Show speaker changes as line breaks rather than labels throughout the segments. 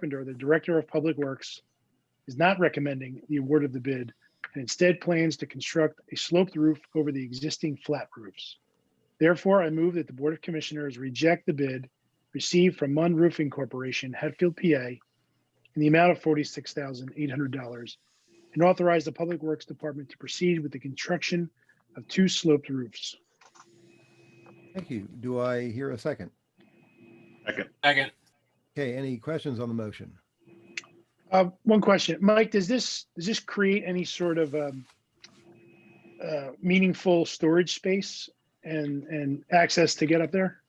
Carpenter, the Director of Public Works, is not recommending the award of the bid and instead plans to construct a sloped roof over the existing flat roofs. Therefore, I move that the Board of Commissioners reject the bid received from Munn Roofing Corporation, Hatfield, PA, in the amount of forty-six thousand eight hundred dollars and authorize the Public Works Department to proceed with the construction of two sloped roofs.
Thank you. Do I hear a second?
Second.
Second.
Okay, any questions on the motion?
Uh, One question, Mike, does this, does this create any sort of um, uh, meaningful storage space and, and access to get up there?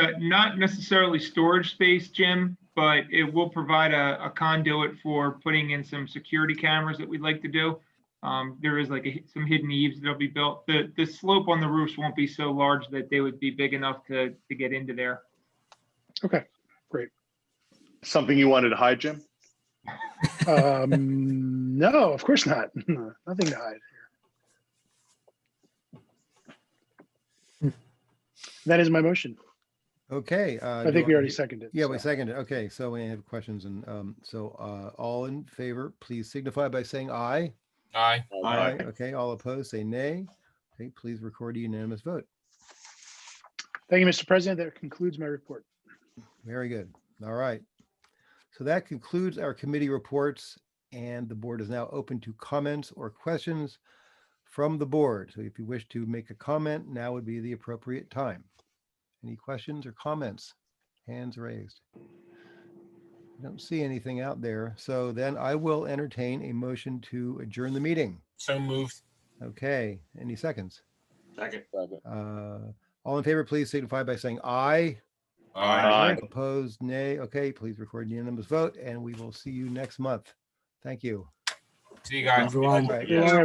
Uh, Not necessarily storage space, Jim, but it will provide a a conduit for putting in some security cameras that we'd like to do. Um, There is like a hi- some hidden eaves that'll be built. The, the slope on the roofs won't be so large that they would be big enough to, to get into there.
Something you wanted to hide, Jim?
Um, No, of course not. Nothing to hide. That is my motion.
Okay. uh,
I
do
think we already seconded.
Yeah, we
so.
seconded. Okay, so we have questions and um, so uh, all in favor, please signify by saying aye.
Aye.
Aye.
Okay, all opposed, say nay. Okay, please record a unanimous vote.
Thank you, Mr. President. That concludes my report.
Very good. All right. So that concludes our committee reports and the board is now open to comments or questions from the board. So if you wish to make a comment, now would be the appropriate time. Any questions or comments? Hands raised. I Don't see anything out there. So then I will entertain a motion to adjourn the meeting.
So moved.
Okay, any seconds?
Second.
Uh, All in favor, please signify by saying aye.
Aye.
Opposed, nay. Okay, please record unanimous vote and we will see you next month. Thank you.
See you guys.
All right.
Yeah.